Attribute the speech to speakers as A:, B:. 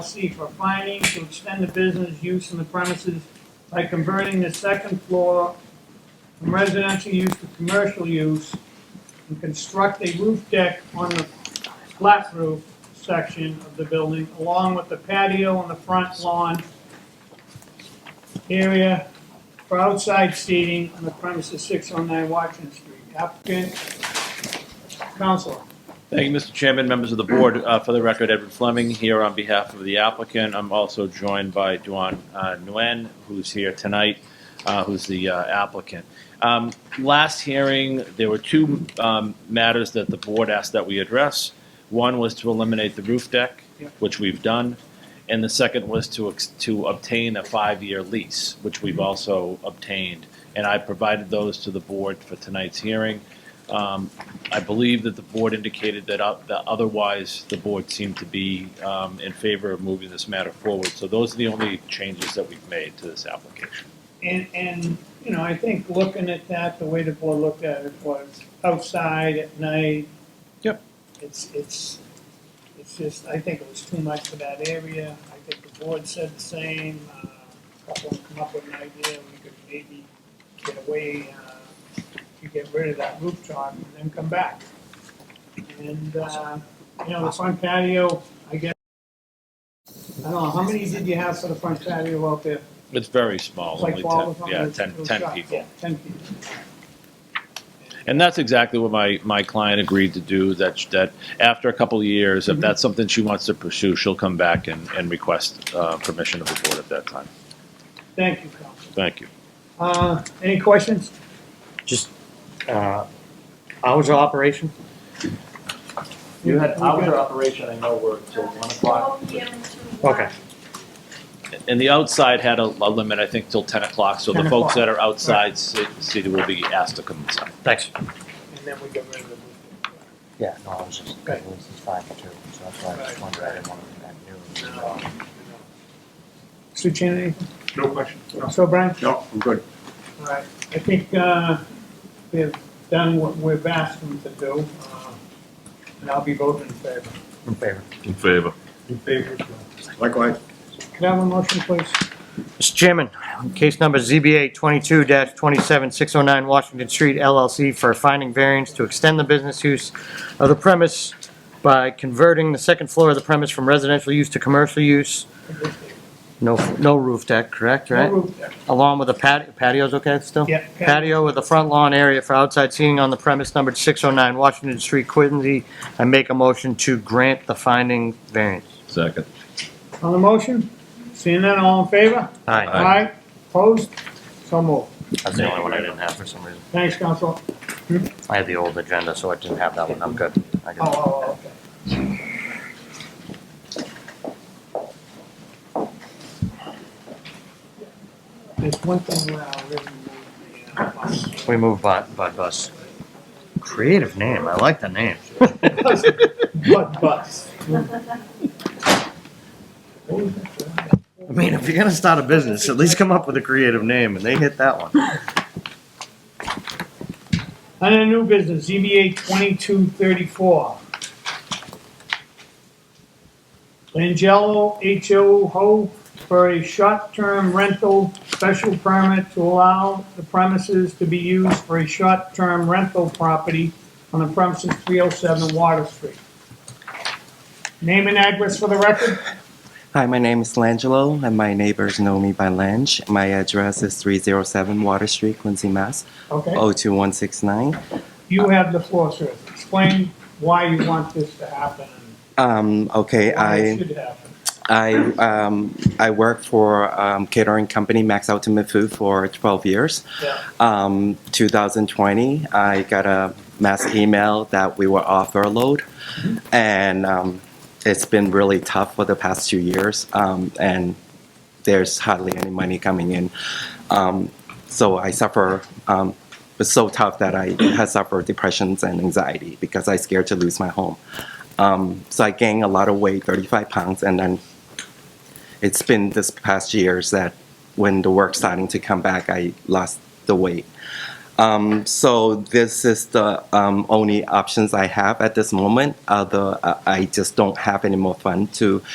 A: C for finding to extend the business use in the premises by converting the second floor from residential use to commercial use and construct a roof deck on the flat roof section of the building along with the patio and the front lawn area for outside seating on the premises six oh nine Washington Street. Applicant, counselor.
B: Thank you, Mr. Chairman, members of the board. Uh, For the record, Edward Fleming here on behalf of the applicant. I'm also joined by Duan uh, Nguyen, who's here tonight, uh, who's the uh, applicant. Um, Last hearing, there were two um, matters that the board asked that we address. One was to eliminate the roof deck,
A: Yeah.
B: which we've done, and the second was to ex- to obtain a five-year lease, which we've also obtained. And I provided those to the board for tonight's hearing. Um, I believe that the board indicated that o- that otherwise, the board seemed to be um, in favor of moving this matter forward. So those are the only changes that we've made to this application.
A: And, and, you know, I think looking at that, the way the board looked at it was outside at night.
B: Yep.
A: It's, it's, it's just, I think it was too much for that area. I think the board said the same. Uh, a Couple come up with an idea, we could maybe get away, uh, to get rid of that rooftop and then come back. And, uh, you know, the front patio, I guess, I don't know, how many did you have for the front patio out there?
B: It's very small,
A: Like
B: only
A: twelve or
B: 10,
A: something?
B: yeah,
A: It's-
B: 10,
A: it was
B: 10
A: shot,
B: people.
A: yeah, Ten people.
B: And that's exactly what my, my client agreed to do, that, sh- that after a couple of years,
A: Mm-hmm.
B: if that's something she wants to pursue, she'll come back and, and request uh, permission of the board at that time.
A: Thank you, Council.
B: Thank you.
A: Uh, any questions?
C: Just uh, hours of operation?
D: You had
A: We
D: hours
A: good?
D: of operation, I know, were till one o'clock.
C: Okay.
B: And the outside had a a limit, I think, till 10 o'clock, so
A: 10
B: the folks
A: o'clock.
B: that are outside ci- city will be asked to come inside.
C: Thanks.
A: And then we get rid of the roof.
E: Yeah, no, I was just,
A: Okay.
E: it was five to two, so that's why I just wondered, I didn't want to be that new. uh,
A: Mr. Chan, anything?
F: No question. No,
A: So, Brian?
F: No, I'm good.
A: All right, I think, uh, we've done what we've asked them to do, uh, and I'll be voting in favor.
E: In favor.
G: In favor.
F: In favor. Likewise.
A: Could I have a motion, please?
C: Mr. Chairman, on case number ZBA 22-27609 Washington Street LLC for finding variance to extend the business use of the premise by converting the second floor of the premise from residential use to commercial use. No, no roof deck, correct, right?
A: No roof deck.
C: Along with a patio, patio's okay still?
A: Yeah.
C: patio with a front lawn area for outside seating on the premise numbered 609 Washington Street, Quincy. I make a motion to grant the finding variance.
G: Second.
A: On the motion, seeing none, all in favor?
C: Aye.
A: Aye, opposed, so moved.
E: That's the only one I didn't have for some reason.
A: Thanks, Council.
E: I had the old agenda, so I didn't have that one, I'm good. I
A: Oh,
E: got it.
A: oh, oh, okay. There's one thing where I really moved the, uh, bus.
C: We move Bud, Bud Bus. Creative name, I like the name.
A: What bus?
C: I mean, if you're gonna start a business, at least come up with a creative name, and they hit that one.
A: Under new business, ZBA twenty-two thirty-four. Langello H.O. Ho for a short-term rental special permit to allow the premises to be used for a short-term rental property on the premises three oh seven Water Street. Name and address for the record?
H: Hi, my name is Langelo, and my neighbors know me by Lange. My address is 307 Water Street, Quincy, Mass.
A: Okay,
H: Oh. 02169.
A: you have the floor, sir. Explain why you want this to happen
H: Um, okay,
A: and why it
H: I
A: should happen.
H: I um, I work for um, catering company Max Ultimate Food for 12 years.
A: Yeah.
H: Um, 2020, I got a mass email that we were off furloughed, and um, it's been really tough for the past two years. Um, and there's hardly any money coming in. Um, so I suffer, um, it's so tough that I have suffered depressions and anxiety because I'm scared to lose my home. Um, so I gained a lot of weight, 35 pounds, and then it's been this past years that when the work starting to come back, I lost the weight. Um, so this is the um, only options I have at this moment. Uh, the, I I just don't have any more fun to